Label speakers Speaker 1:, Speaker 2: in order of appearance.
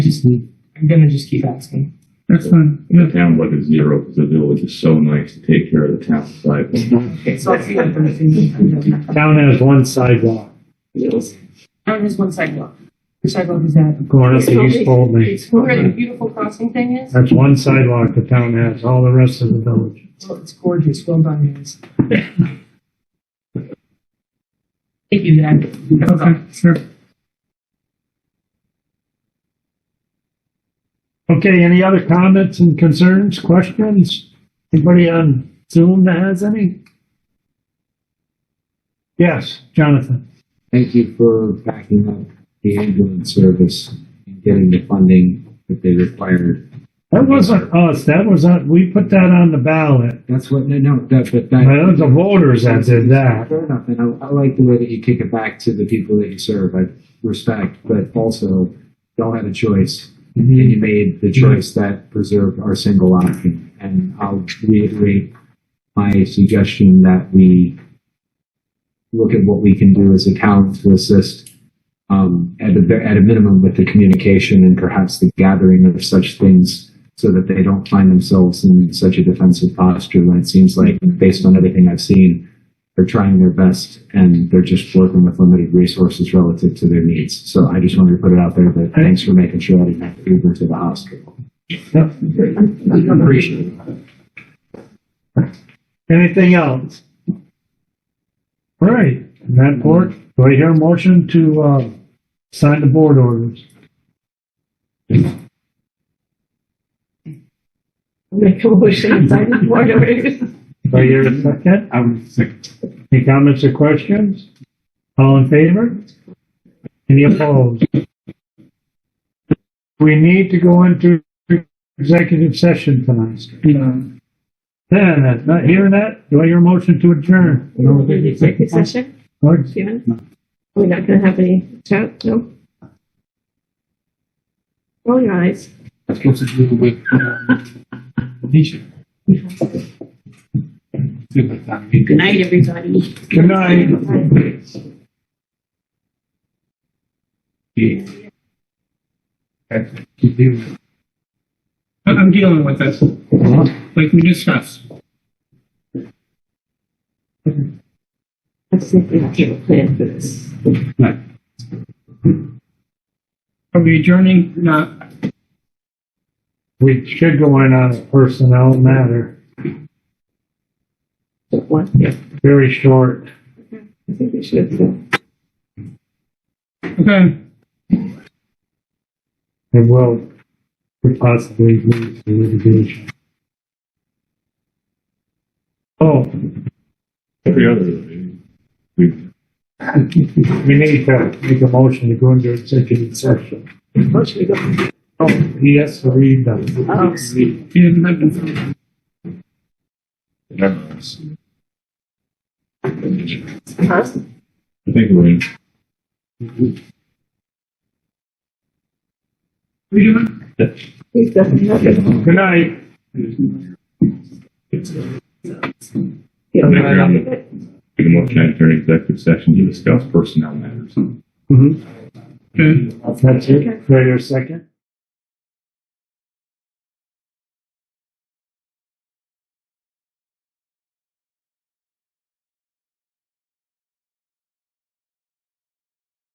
Speaker 1: just, I'm gonna just keep asking.
Speaker 2: That's fine.
Speaker 3: And the town budget is zero because the village is so nice to take care of the town side.
Speaker 1: Okay, so I'll see you on Thursday.
Speaker 4: Town has one sidewalk
Speaker 1: Town has one sidewalk. The sidewalk is that.
Speaker 4: going up
Speaker 1: It's
Speaker 4: to East
Speaker 1: it's-
Speaker 4: Bolton.
Speaker 1: It's where the beautiful crossing thing is.
Speaker 4: That's one sidewalk the town has, all the rest of the village.
Speaker 1: Well, it's gorgeous. Well done, guys. Thank you, Dad.
Speaker 2: Okay, sure.
Speaker 4: Okay, any other comments and concerns, questions? Anybody on Zoom that has any? Yes, Jonathan.
Speaker 5: Thank you for backing up the ambulance service and getting the funding that they required.
Speaker 4: That wasn't us, that was, on- we put that on the ballot.
Speaker 5: That's what, no, no, that, but that.
Speaker 4: That was the voters that did that.
Speaker 5: Fair enough, and I, I like the way that you kick it back to the people that you serve, I respect, but also don't have a choice. And
Speaker 4: Mm-hmm.
Speaker 5: you made the choice that preserved our single option, and I'll reiterate my suggestion that we look at what we can do as a town to assist, um, at a, at a minimum with the communication and perhaps the gathering of such things so that they don't find themselves in such a defensive posture when it seems like, based on everything I've seen, they're trying their best and they're just working with limited resources relative to their needs. So I just wanted to put it out there, but thanks for making sure I didn't have to Uber to the hospital.
Speaker 4: Yep.
Speaker 5: Appreciate it.
Speaker 4: Anything else? All right, on that board, do I hear a motion to, uh, sign the board orders?
Speaker 6: Make a motion, sign the board orders.
Speaker 4: Do I hear a second?
Speaker 5: I'm sick.
Speaker 4: Any comments or questions? All in favor? Any opposed? We need to go into executive session tonight.
Speaker 1: um,
Speaker 2: No.
Speaker 4: Then, uh, not hearing that, do I hear a motion to adjourn?
Speaker 6: Executive session,
Speaker 4: Or-
Speaker 6: yeah. We're not gonna have any chat, no? Roll your eyes.
Speaker 7: That's what to do with um, Nisha. See what that means.
Speaker 6: Good night, everybody.
Speaker 4: Good night.
Speaker 7: Yeah. Okay. You deal with it.
Speaker 2: I- I'm dealing with this,
Speaker 7: Uh-huh.
Speaker 2: like we discussed.
Speaker 6: Let's see if we have a plan for this.
Speaker 2: Are we adjourning? Not,
Speaker 4: We should go in on a personnel matter,
Speaker 6: What?
Speaker 4: very short.
Speaker 6: I think we should, uh,
Speaker 2: okay.
Speaker 4: It will possibly lead to litigation. Oh,
Speaker 3: Every other, meeting, we
Speaker 4: we need to make a motion to go into executive session.
Speaker 6: what should we go?
Speaker 4: Oh, he has to read them.
Speaker 6: Oh,
Speaker 2: You didn't have to-
Speaker 3: members.
Speaker 6: huh?
Speaker 3: I think we're in.
Speaker 2: We doing?
Speaker 6: We've done nothing.
Speaker 4: Good night.
Speaker 6: Yeah.
Speaker 3: Maybe we're on the- Make a motion to enter executive session to discuss personnel matters.
Speaker 4: Mhm.
Speaker 2: Okay.
Speaker 4: That's it. Wait a second.